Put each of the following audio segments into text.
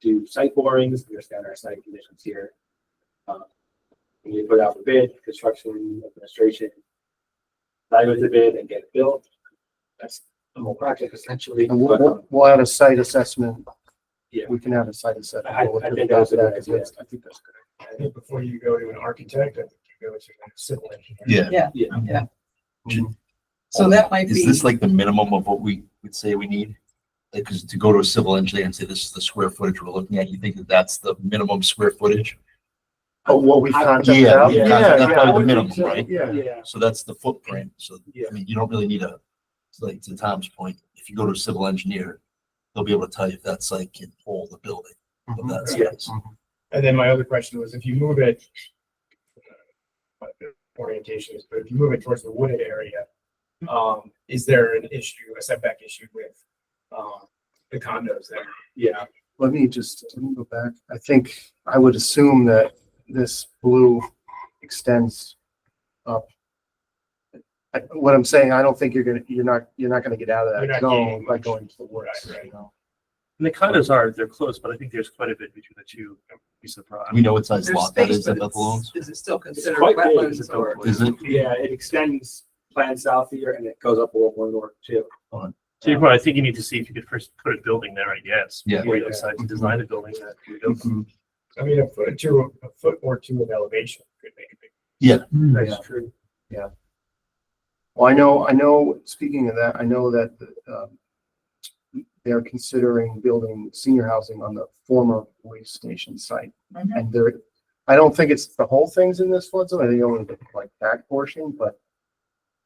do site borings, we understand our site conditions here. Um, We put out the bid, construction administration. Evaluate the bid and get it built. That's the whole project essentially. And we'll, but, um, we'll, we'll have a site assessment. Yeah. We can have a site assessment. I, I think that's a good idea. I think that's good. I think before you go to an architect, I think you go to a civil engineer. Yeah. Yeah. Yeah. Yeah. So that might Oh, Is be, this like the minimum of what we would say we need? Like, cause to go to a civil engineer and say this is the square footage we're looking at, you think that that's the minimum square footage? Oh, what we Yeah, contracted yeah, out? we contracted yeah. out. I would minimum, think so, right? Yeah. Yeah. So that's the footprint. So, Yeah. I mean, you don't really need a, it's like to Tom's point, if you go to a civil engineer, they'll be able to tell you if that site can hold the building Mm-hmm. of that size. And then my other question was if you move it. uh, Orientation is, but if you move it towards the wooded area, um, is there an issue, a setback issue with, um, the condos there? Yeah, Let me just, let me go back. I think, I would assume that this blue extends up. I- What I'm saying, I don't think you're gonna, you're not, you're not gonna get out of You're that not zone getting by much. going to the works. Right, right. you know? And the condos are, they're close, but I think there's quite a bit between the two pieces of We property. know what size there's lot that space, is but at Bethel it's- Owens? is it still considered quite big, it's wetlands a or? Is it? yeah, it extends plan south here and it goes up World War North too. So you probably, I think you need to see if you could first put a building there, I guess. Yeah. Before you decide to design a building that we don't. I mean, a foot or two, a foot or two of elevation could make a big. That's true. Well, I know, I know, speaking of that, I know that, um, they're considering building senior housing on the former police station site. Mhm. And there, I don't think it's the whole things in this flood zone, I think only the like back portion, but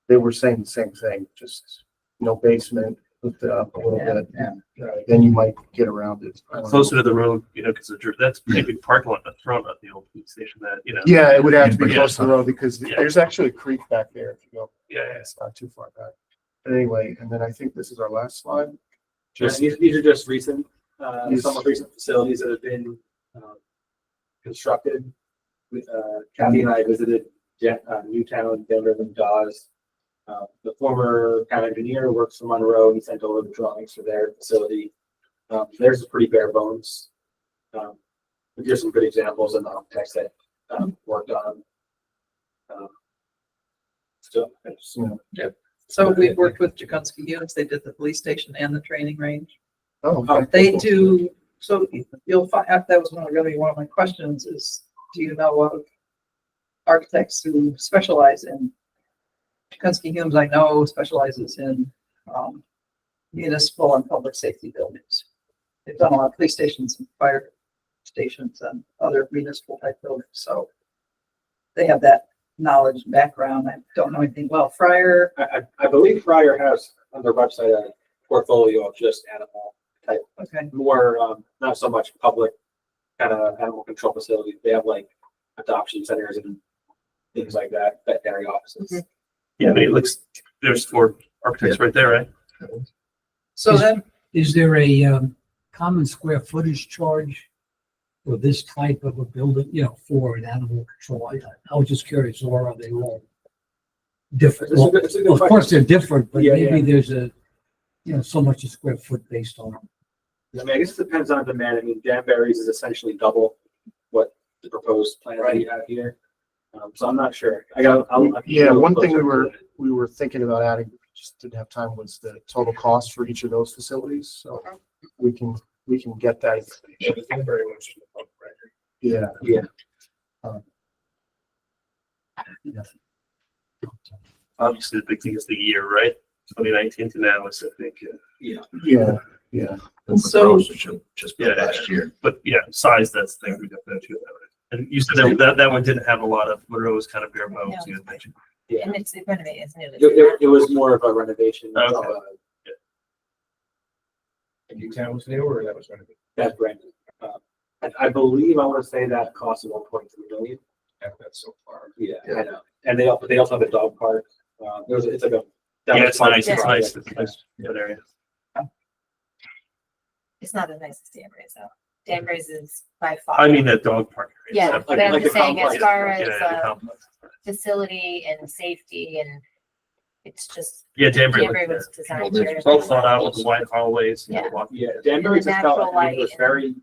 they were saying the same thing, just no basement, lift it up a little Yeah, bit. yeah. uh, Then you might get around it. I don't know. Closer to the road, you know, because that's a pretty big parking lot in the front of the old police station that, you know. Yeah, it would have to be Yeah. close to the road because Yeah. there's actually a creek back there if you go, Yeah, yeah. it's not too far back. But anyway, and then I think this is our last slide. Yeah, Just, these, these are just recent, uh, These- some of recent facilities that have been, um, constructed. We- Uh, Kathy and I visited Je- uh, Newtown, Denver, and Dawes. Uh, the former town engineer works for Monroe. He sent over the drawings for their facility. Um, theirs is pretty bare bones. Um, but here's some good examples of the architects that, um, worked on. um, So, it's- you know, So we've worked with Jakunski units. They did the police station and the training range. oh, Oh, They do, so you'll find, that was one of really one of my questions is, do you know of architects who specialize in? Kunsky Humes, I know specializes in um, municipal and public safety buildings. They've done a lot of police stations and fire stations and other municipal type buildings, so they have that knowledge and background. I don't know anything. Well, Fryer, I, I, I believe Fryer has on their website a portfolio of just animal okay, more, um, not so much public kind of animal control facilities. They have like adoption centers and things like that, veterinary offices. Yeah, I mean, it looks, there's four architects right there, right? so then, Is there a um, common square footage charge for this type of a building, you know, for an animal control? I- I was just curious, or are they all different? It's a good- it's a good Well, Of course, question. they're different, but Yeah, maybe there's a, you know, so much a square foot based on. I mean, I guess it depends on demand. I mean, Danbury's is essentially double what the proposed plan that you have here. Um, so I'm not sure. I got, I'll. I'll- Yeah, one thing we were- Closer. we were thinking about adding, but we just didn't have time, was the total cost for each of those facilities, so we can, we can get that, Very much. Right. yeah. Obviously, the big thing is the year, right? Twenty nineteen to now is, I think, uh, Yeah. Yeah, yeah. That's the So- roads that should Just built Yeah. last year. but yeah, size, that's the thing we definitely have to about it. And you said that, that, that one didn't have a lot of, Monroe was kind of bare bones, you had mentioned. Yeah. And it's the renovate, isn't it? It, it, it was more of a renovation. of, Okay. uh, And Newtown was new or that was gonna be? That brand. Uh, I, I believe I want to say that cost one point three million. Yeah, That's so far. Yeah, Yeah. I know. And they also, they also have a dog park. Uh, there's, it's like a. that Yeah, was it's part of nice, the it's nice, project. it's nice, that area. It's not the nicest Danbury's though. Danbury's is by far. I mean, that dog park. area, Yeah, stuff but like- I'm like just the saying as complex. far Yeah, as, yeah, the uh, complex. Facility and safety and it's just, Yeah, Danbury. Danbury looked was good. designed Well, here. Well thought out with the wide hallways, you know, Yeah. walking. Yeah, Danbury's And the just felt natural like it was light and- very